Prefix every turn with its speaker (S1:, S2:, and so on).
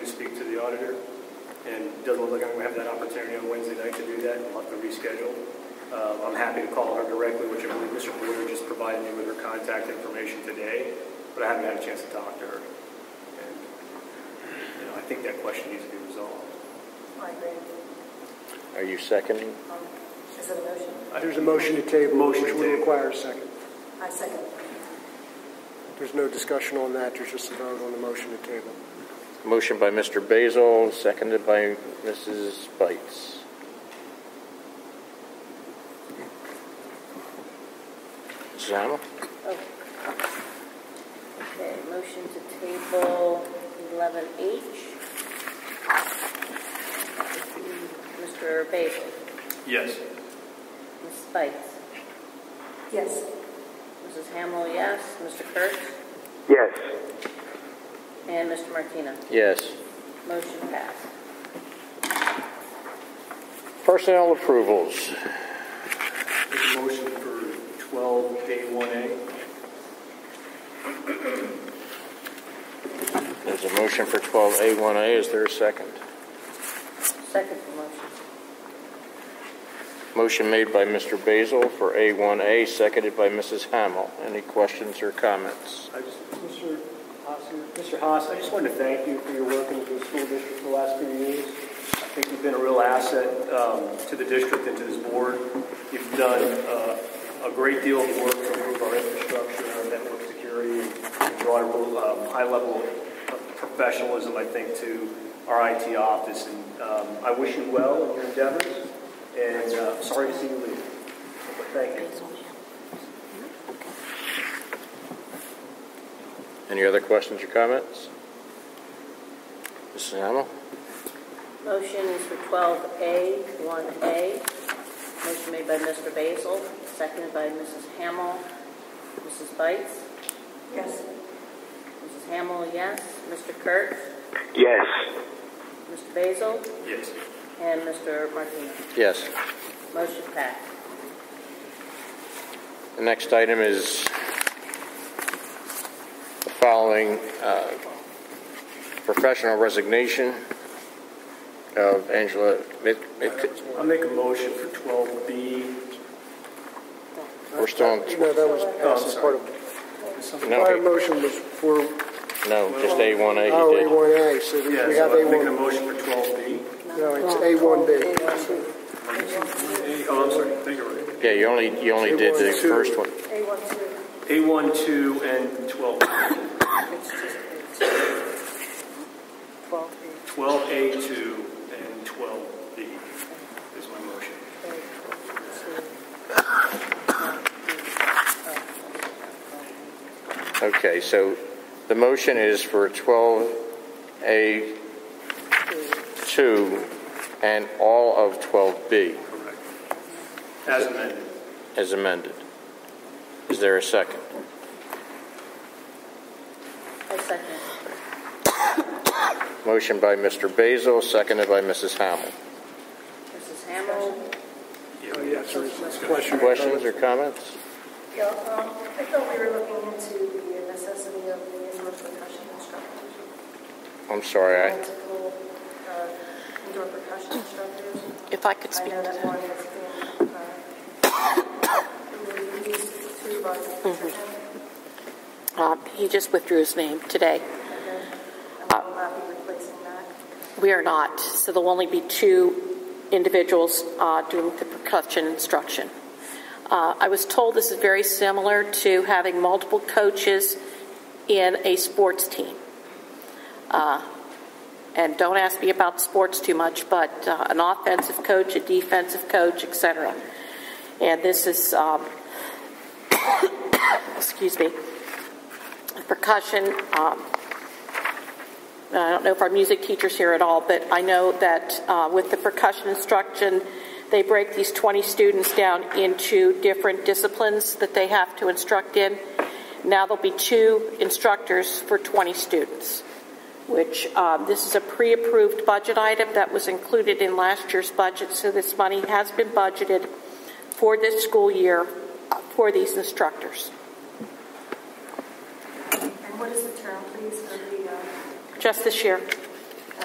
S1: the auditor, and it doesn't look like I'm gonna have that opportunity on Wednesday night to do that, I'll have to reschedule. Uh, I'm happy to call her directly, which I believe Mr. Boyer just provided me with her contact information today, but I haven't had a chance to talk to her. And, You know, I think that question needs to be resolved.
S2: I agree.
S3: Are you seconding?
S2: Um, Is it a motion?
S4: There's a motion to table, which
S1: Motion to
S4: will
S1: table.
S4: require a second.
S2: I second.
S4: There's no discussion on that, there's just a vote on the motion to table.
S3: Motion by Mr. Basil, seconded by Mrs. Bites. Mrs. Hamel?
S5: Okay, motion to table 11H. Mr. Basil,
S1: Yes.
S5: Mrs. Bites,
S2: Yes.
S5: Mrs. Hamel, yes, Mr. Kurtz,
S3: Yes.
S5: and Mr. Martina.
S3: Yes.
S5: Motion passed.
S3: Personnel approvals.
S1: Make a motion for 12 day 1A.
S3: There's a motion for 12A1A. Is there a second?
S5: Second motion.
S3: Motion made by Mr. Basil for A1A, seconded by Mrs. Hamel. Any questions or comments?
S1: I just, Mr. Haas, Mr. Haas, I just wanted to thank you for your work in the school district for the last few years. I think you've been a real asset um, to the district and to this board. You've done uh, a great deal of work to improve our infrastructure, our network security, and brought a um, high level of professionalism, I think, to our IT office. And um, I wish you well in your endeavors, and uh, sorry to see you leave. But thank you.
S3: Any other questions or comments? Mrs. Hamel?
S5: Motion is for 12A, 1A. Motion made by Mr. Basil, seconded by Mrs. Hamel, Mrs. Bites,
S2: Yes.
S5: Mrs. Hamel, yes, Mr. Kurtz,
S3: Yes.
S5: Mr. Basil,
S1: Yes.
S5: and Mr. Martina.
S3: Yes.
S5: Motion passed.
S3: The next item is the following uh, professional resignation of Angela Mit- Mit-
S1: I'll make a motion for 12B.
S3: We're still on,
S4: No, that was
S1: Oh, I'm
S4: passed as
S1: sorry.
S4: part of, prior
S3: no,
S4: motion was for, oh,
S3: no, just A1A he did.
S4: A1A, so we
S1: Yeah,
S4: have
S1: so I'm making a
S4: A1,
S1: motion for 12B.
S4: no, it's A1B.
S1: Oh, I'm sorry, I think you're right.
S3: Yeah, you only, you only did the first one.
S2: A one, two.
S1: A1, 2, and 12.
S2: It's just A two. Twelve,
S1: 12A2 and 12B is my motion.
S2: A, twelve,
S3: Okay, so the motion is for 12A2 and all of 12B
S1: Correct. As amended.
S3: as amended. Is there a second?
S5: I second.
S3: Motion by Mr. Basil, seconded by Mrs. Hamel.
S5: Mrs. Hamel,
S4: Oh, yes, there is a question.
S3: Questions or comments?
S2: two. Yeah, um, I thought we were looking into the necessity of the indoor percussion instructors.
S3: I'm sorry, I,
S2: Multiple, uh, indoor percussion instructors.
S6: If I could
S2: I
S6: speak
S2: know
S6: to
S2: that
S6: that.
S2: one has been, uh, released to by
S6: Mm-hmm.
S2: the,
S6: Um, He just withdrew his name today.
S2: and will not be replacing that.
S6: We are not, so there'll only be two individuals uh, doing the percussion instruction. Uh, I was told this is very similar to having multiple coaches in a sports team. Uh, And don't ask me about sports too much, but uh, an offensive coach, a defensive coach, et cetera. And this is, um, excuse me, percussion um, Uh, I don't know if our music teacher's here at all, but I know that uh, with the percussion instruction, they break these 20 students down into different disciplines that they have to instruct in. Now there'll be two instructors for 20 students, which um, this is a pre approved budget item that was included in last year's budget, so this money has been budgeted for this school year uh, for these instructors.
S2: And what is the uh, term, please, for the, um,
S6: Just this year,